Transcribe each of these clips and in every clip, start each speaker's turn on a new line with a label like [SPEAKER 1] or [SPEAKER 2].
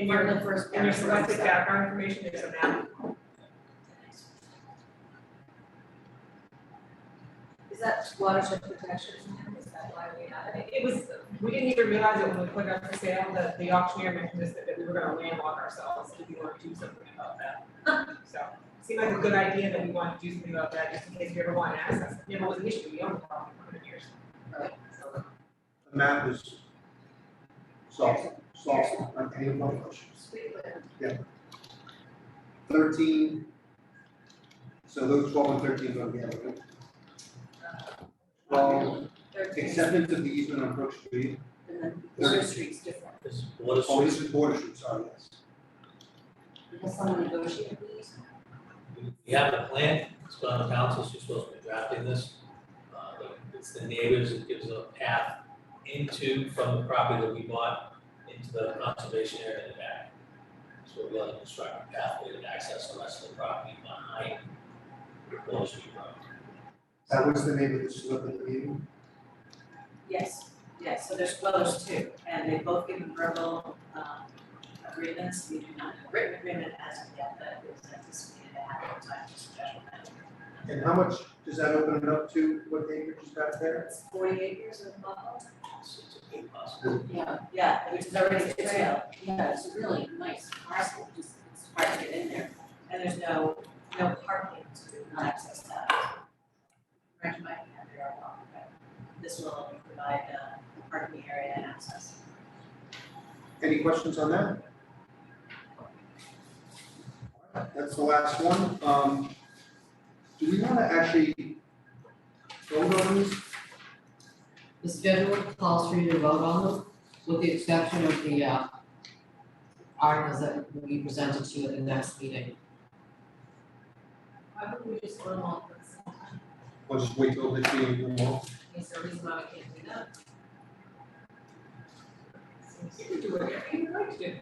[SPEAKER 1] in your, in your selected background information, there's a map.
[SPEAKER 2] Is that watershed protection? Is that why we have it?
[SPEAKER 1] It was, we didn't even realize it when we put it up for sale, that the auctioneer mentioned this, that we were gonna landlock ourselves if we wanted to do something about that. So, seemed like a good idea that we wanted to do something about that, just in case we ever want access, it never was an issue, we owned the property for hundred years. So,
[SPEAKER 3] The map is soft, soft, I think, no questions.
[SPEAKER 2] Sweetland.
[SPEAKER 3] Thirteen, so those twelve and thirteen go together.
[SPEAKER 4] uh,
[SPEAKER 3] Well,
[SPEAKER 2] Thirteen.
[SPEAKER 3] acceptance of the easement on Brook Street,
[SPEAKER 2] And then
[SPEAKER 3] Thirteen.
[SPEAKER 2] Third Street's different.
[SPEAKER 5] This, what is,
[SPEAKER 3] oh, this is Border Street, sorry, yes.
[SPEAKER 2] Because someone negotiated these.
[SPEAKER 5] we have a plan, it's been on council, she's supposed to be drafting this. Uh, but it's the neighbors, it gives a path into, from the property that we bought, into the conservation area in the back. So we're gonna construct a pathway to access the rest of the property behind the Wall Street Road.
[SPEAKER 3] That was the name of the slip in the meeting,
[SPEAKER 4] Yes, yes, so there's, well, there's two, and they both give verbal um agreements, we do not have a written agreement as of yet, but it was anticipated to happen time to special measure.
[SPEAKER 3] and how much does that open it up to, what acreage is that there?
[SPEAKER 4] It's forty acres of model?
[SPEAKER 5] So it's a big possibility.
[SPEAKER 4] Yeah. Yeah, which is already a trail,
[SPEAKER 6] Yeah, it's a really nice parcel, just it's hard to get in there.
[SPEAKER 4] and there's no, no parking to access that. Correct my, there are walking, but this will provide uh parking area and access.
[SPEAKER 3] Any questions on that? That's the last one, um, do we wanna actually vote on these?
[SPEAKER 6] The schedule calls for you to vote on them, with the exception of the uh articles that will be presented to you at the next meeting.
[SPEAKER 2] Why would we just go along with this?
[SPEAKER 3] Or just wait till the meeting, and we'll-
[SPEAKER 2] Is there a reason why we can't do that?
[SPEAKER 1] You can do whatever you like to do.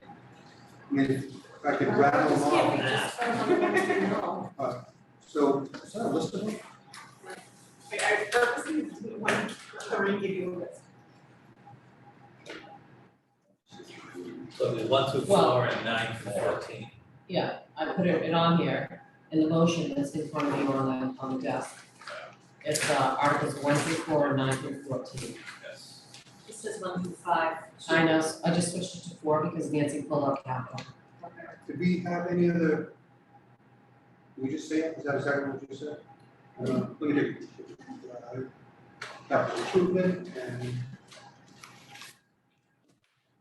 [SPEAKER 3] I mean, if I could rattle them
[SPEAKER 2] Can't we
[SPEAKER 3] off,
[SPEAKER 2] just go along with it? No.
[SPEAKER 3] so, is that a list of them?
[SPEAKER 1] Like, I purposely didn't want to come and give you a list.
[SPEAKER 5] So we one through four and nine through fourteen.
[SPEAKER 6] Yeah, I put it it on here, in the motion that's in front of you on the on the desk. It's uh articles one through four and nine through fourteen.
[SPEAKER 5] Yes.
[SPEAKER 4] This says one through five.
[SPEAKER 6] I know, I just switched it to four because Nancy pulled out capital.
[SPEAKER 3] Did we have any other? Did we just say, it? Is that exactly what you said? Uh, let me do. Uh, Capital improvement and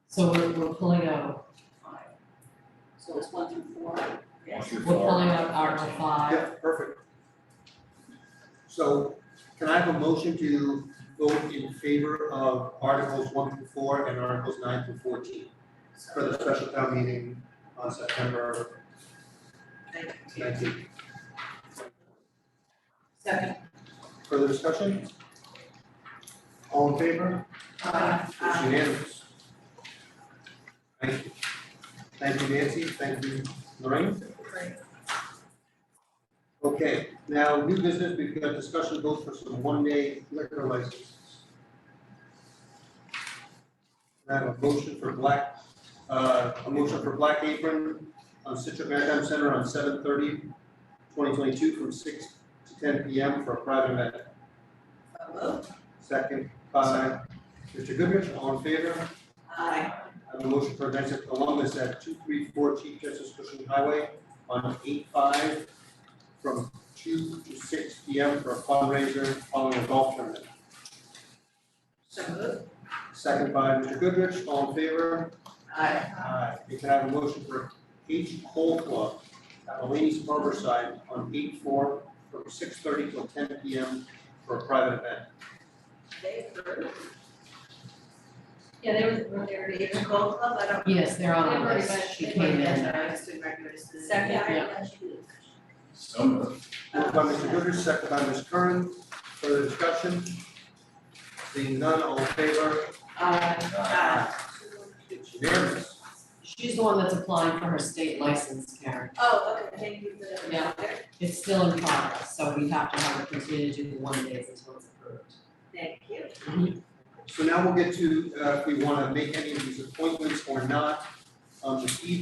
[SPEAKER 6] So we're we're pulling out,
[SPEAKER 4] So it's one through four, yes.
[SPEAKER 6] we're pulling out article five,
[SPEAKER 3] Yeah, perfect. So can I have a motion to vote in favor of Articles one through four and Articles nine through fourteen for the special town meeting on September nineteenth?
[SPEAKER 4] Second.
[SPEAKER 3] Further discussion? All in favor?
[SPEAKER 4] Uh,
[SPEAKER 3] It's
[SPEAKER 4] uh,
[SPEAKER 3] unanimous. Thank you. Thank you, Nancy. Thank you, Lorraine.
[SPEAKER 1] Right.
[SPEAKER 3] Okay, now new business, we've got discussion votes for some one-day liquor licenses. Can I have a motion for Black, uh, a motion for Black Apron on Citrus Maritime Center on 7:30, 2022, from six to ten P M for a private event.
[SPEAKER 4] so moved.
[SPEAKER 3] Second by Mr. Goodrich, all in favor?
[SPEAKER 4] Aye.
[SPEAKER 3] I have a motion for events at Columbus at two three four Chief Justice Cushing Highway on eight five from two to six P M for a fundraiser following a golf tournament.
[SPEAKER 4] So moved.
[SPEAKER 3] Second by Mr. Goodrich, all in favor?
[SPEAKER 4] Aye.
[SPEAKER 3] Aye. We can I have a motion for H Cole Club at Alanis Harborside on eight four from six thirty till ten P M for a private event.
[SPEAKER 4] They approved. Yeah, they were, were they already in the golf club, I don't.
[SPEAKER 6] yes, they're on the
[SPEAKER 4] Everybody,
[SPEAKER 6] list, she
[SPEAKER 4] they
[SPEAKER 6] came in.
[SPEAKER 4] were, that's right, I just didn't recognize the.
[SPEAKER 2] Second.
[SPEAKER 7] So moved.
[SPEAKER 4] Uh,
[SPEAKER 3] Moved by Mr. Goodrich, second by Ms. Curran, further discussion? Seeing none, all in favor?
[SPEAKER 6] Uh,
[SPEAKER 4] Aye.
[SPEAKER 3] It's unanimous.
[SPEAKER 6] she's the one that's applying for her state license, Karen.
[SPEAKER 4] Oh, okay, thank you for the.
[SPEAKER 6] Yeah. It's still in progress, so we have to have her continue to do the one days until it's approved.
[SPEAKER 4] Thank you.
[SPEAKER 3] So now we'll get to, uh, if we wanna make any of these appointments or not. Um, um, the E